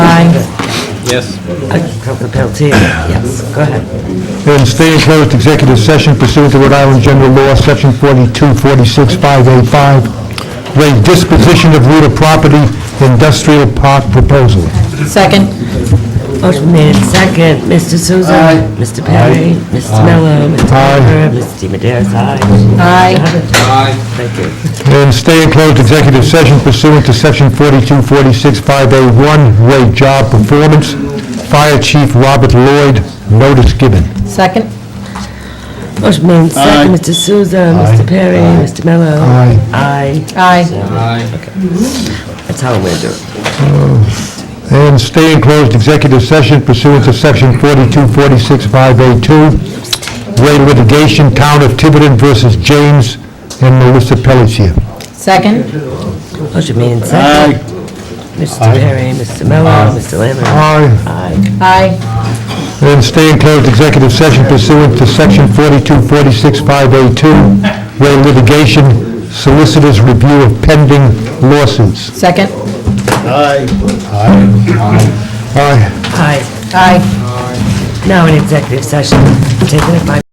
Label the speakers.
Speaker 1: Yes.
Speaker 2: Councilor Pelletier? Yes, go ahead.
Speaker 3: And stay in closed executive session pursuant to Rhode Island General Law, Section 4246585, oh rate disposition of real property, industrial park proposal.
Speaker 4: Second.
Speaker 2: Motion made in Oh, second. Mr. Souza? Mr. Perry? Mr. Mello? Mr.
Speaker 3: Aye.
Speaker 2: Piper? Mr. Maderas, aye. Oh,
Speaker 4: Aye.
Speaker 1: Aye.
Speaker 2: Thank you.
Speaker 3: And stay in closed executive session pursuant to Section 4246581, oh rate job performance, Fire Chief Robert Lloyd, notice given.
Speaker 4: Second.
Speaker 2: Motion made in second. Mr. Souza? Mr. Perry? Mr. Mello?
Speaker 3: Aye.
Speaker 2: Aye.
Speaker 4: Aye.
Speaker 1: Aye.
Speaker 2: That's how we're doing.
Speaker 3: And stay in closed executive session pursuant to Section 4246582, rate litigation, Town of Tiverton versus James and Melissa Pelletier.
Speaker 4: Second.
Speaker 2: Motion made in second. Mr. Perry? Mr. Mello? Mr. Lambert?
Speaker 3: Aye.
Speaker 2: Aye.
Speaker 4: Aye.
Speaker 3: And stay in closed executive session pursuant to Section 4246582, rate litigation, solicitors review of pending lawsuits.
Speaker 4: Second.
Speaker 3: Aye.
Speaker 2: Aye.
Speaker 4: Aye.
Speaker 2: Now in executive session, taking it by